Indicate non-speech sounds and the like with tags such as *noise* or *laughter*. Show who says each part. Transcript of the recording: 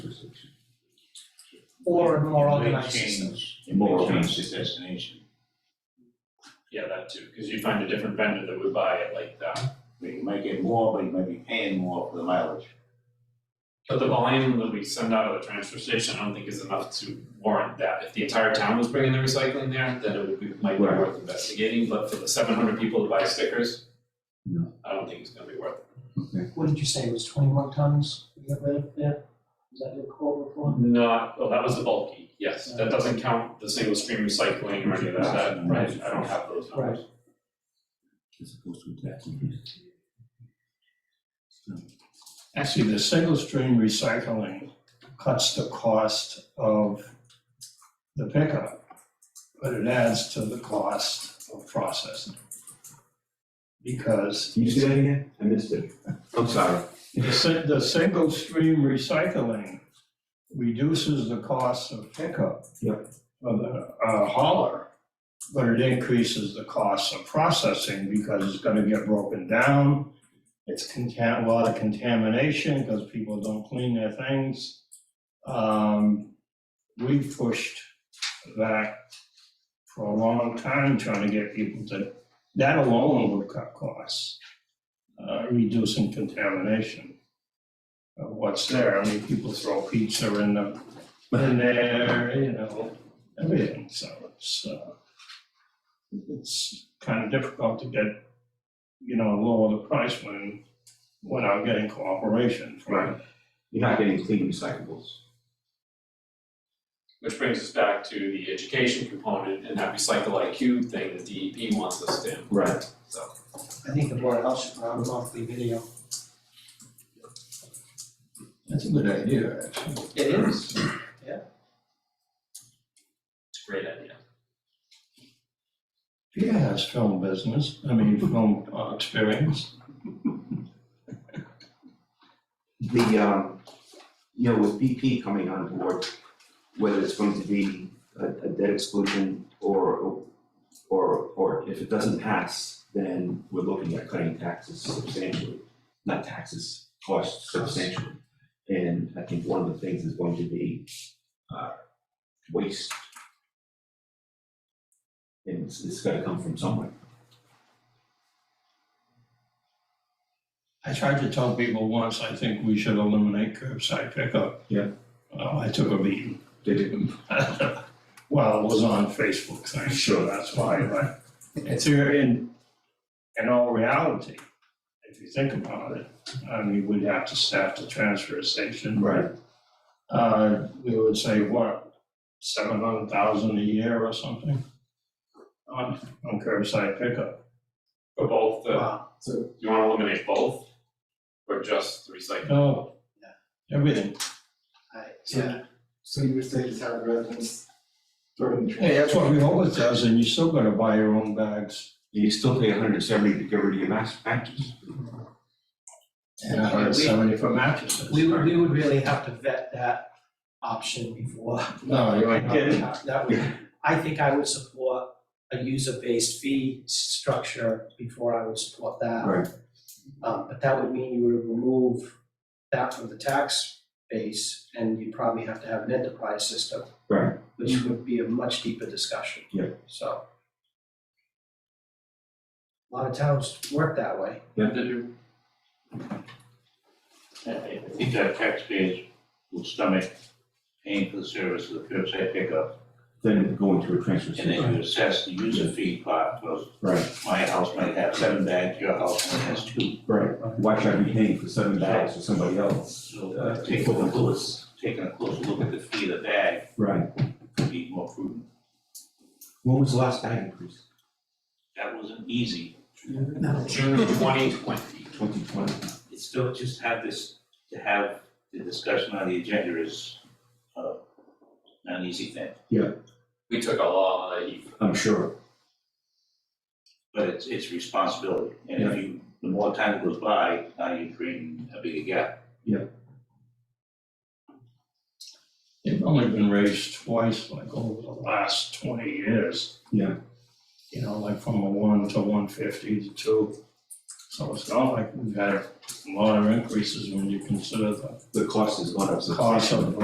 Speaker 1: jurisdiction.
Speaker 2: Or a more
Speaker 3: It may
Speaker 2: organized system.
Speaker 3: change- It may
Speaker 1: More
Speaker 3: change
Speaker 1: organized.
Speaker 3: the destination.
Speaker 4: Yeah, that too, because you find a different vendor that would buy it like that.
Speaker 3: But you might get more, but you might be paying more for the mileage.
Speaker 4: But the volume that we send out of the transfer station, I don't think is enough to warrant that. If the entire town was bringing their recycling there, then it would be, might be
Speaker 1: Right.
Speaker 4: worth investigating, but for the seven hundred people that buy stickers,
Speaker 1: No.
Speaker 4: I don't think it's gonna be worth it.
Speaker 2: What did you say, it was twenty-one tons we got rid of there? Is that your quote before?
Speaker 4: Not, well, that was the bulky, yes, that doesn't count the single stream recycling or any of that, that, right, I don't have those numbers.
Speaker 1: As opposed to a tax increase.
Speaker 5: Actually, the single stream recycling cuts the cost of the pickup, but it adds to the cost of processing. Because
Speaker 1: Can you say that again? I missed it. I'm sorry.
Speaker 5: the, si- the single stream recycling reduces the cost of pickup.
Speaker 1: Yep.
Speaker 5: Of the uh, hauler, but it increases the cost of processing because it's gonna get broken down. It's contam, a lot of contamination because people don't clean their things. Um, we pushed that for a long time trying to get people to, that alone would cut costs uh, reducing contamination of what's there. I mean, people throw pizza in the, in there, you know, everything, so it's, uh, it's kind of difficult to get, you know, lower the price when, when I'm getting cooperation from
Speaker 1: You're not getting clean recyclables.
Speaker 4: Which brings us back to the education component and that recycle IQ thing that DEP wants us to implement.
Speaker 1: Right.
Speaker 2: I think the board of health should run a monthly video.
Speaker 5: That's a good idea, actually.
Speaker 2: It is.
Speaker 4: It's a great idea.
Speaker 5: Peter has film business, I *laughs* mean, film uh, experience.
Speaker 1: the, um, you know, with BP coming on board, whether it's going to be a, a debt exclusion or, or, or if it doesn't pass, then we're looking at cutting taxes substantially, not taxes, costs substantially. And I think one of the things is going to be, uh, waste. And it's, it's gotta come from somewhere.
Speaker 5: I tried to tell people once, I think we should eliminate curbside pickup.
Speaker 1: Yeah.
Speaker 5: Uh, I took a beating.
Speaker 1: Did it,
Speaker 5: *laughs* Well, it was on Facebook, so I'm sure that's why, but it's here in, in all reality, if you think about it, I mean, we'd have to staff the transfer station.
Speaker 1: Right.
Speaker 5: Uh, we would say, what, seven hundred thousand a year or something? On, on curbside pickup.
Speaker 4: For both the,
Speaker 2: Wow,
Speaker 4: you wanna eliminate both? Or just the recycling?
Speaker 5: No, everything.
Speaker 2: I- yeah.
Speaker 6: So, so you were saying town residents throwing the trash?
Speaker 5: Hey, that's what we always does, and you still gotta buy your own bags
Speaker 1: you still pay hundred and seventy to get rid of your mass matches?
Speaker 5: and a hundred and seventy for mattresses.
Speaker 2: We would, we would really have to vet that option before.
Speaker 5: No, you ain't getting it.
Speaker 2: That would, I think I would support a user-based fee structure before I would support that.
Speaker 1: Right.
Speaker 2: Um, but that would mean you would remove that from the tax base, and you'd probably have to have an enterprise system.
Speaker 1: Right.
Speaker 2: Which would be a much deeper discussion.
Speaker 1: Yeah.
Speaker 2: So. A lot of towns work that way.
Speaker 3: I I think our taxpayers will stomach paying for the service of the curbside pickup,
Speaker 1: Then going to a transfer
Speaker 3: and
Speaker 1: station.
Speaker 3: then you assess the user fee part, because
Speaker 1: Right,
Speaker 3: my house might have seven bags, your house only has two.
Speaker 1: right. Why should I be paying for seven bags for somebody else?
Speaker 3: So uh, taking a close, taking a close look at the fee of the bag
Speaker 1: Right.
Speaker 3: could be more prudent.
Speaker 1: When was the last bag increase?
Speaker 3: That wasn't easy.
Speaker 4: June of twenty twenty.
Speaker 1: Twenty twenty.
Speaker 3: It's still just have this, to have the discussion on the agenda is uh, not an easy thing.
Speaker 4: We took a lot of heat.
Speaker 1: I'm sure.
Speaker 3: but it's, it's responsibility. And if you, the more time goes by, now you're creating a bigger gap.
Speaker 5: They've only been raised twice, like over the last twenty years.
Speaker 1: Yeah.
Speaker 5: You know, like from a one to one fifty to two. So it's not like we've had a lot of increases when you consider the
Speaker 1: The cost has gone up
Speaker 5: cost
Speaker 1: substantially.
Speaker 5: of